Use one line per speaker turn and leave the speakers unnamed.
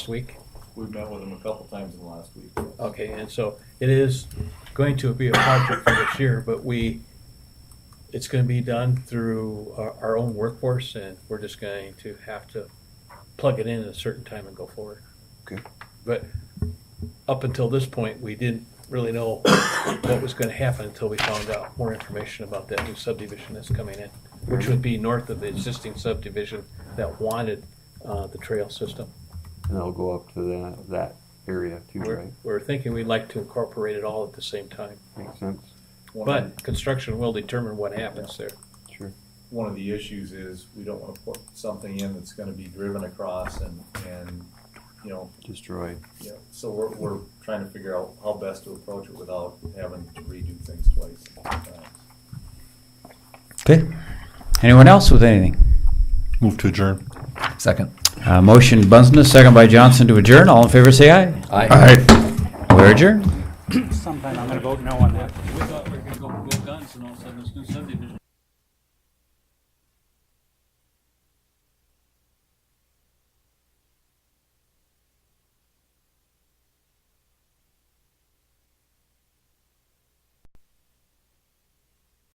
week?
We've met with them a couple times in the last week.
Okay, and so it is going to be a project for this year, but we, it's gonna be done through our, our own workforce and we're just going to have to plug it in at a certain time and go forward.
Okay.
But up until this point, we didn't really know what was gonna happen until we found out more information about that new subdivision that's coming in, which would be north of the existing subdivision that wanted, uh, the trail system.
And it'll go up to that, that area too,
We're,
right?
we're thinking we'd like to incorporate it all at the same time,
Makes sense,
One of
but construction will determine what happens there.
sure.
one of the issues is we don't wanna put something in that's gonna be driven across and, and, you know,
Destroyed.
you know, so we're, we're trying to figure out how best to approach it without having to redo things twice. and three times.
Okay. Anyone else with anything?
Move to adjourn.
Second.
Uh, motion Bunsen, second by Johnson to adjourn. All in favor, say aye.
Aye.
We're adjourned.
sometime I'm gonna vote no on that.
We thought we were gonna go, go guns and all of a sudden this new subdivision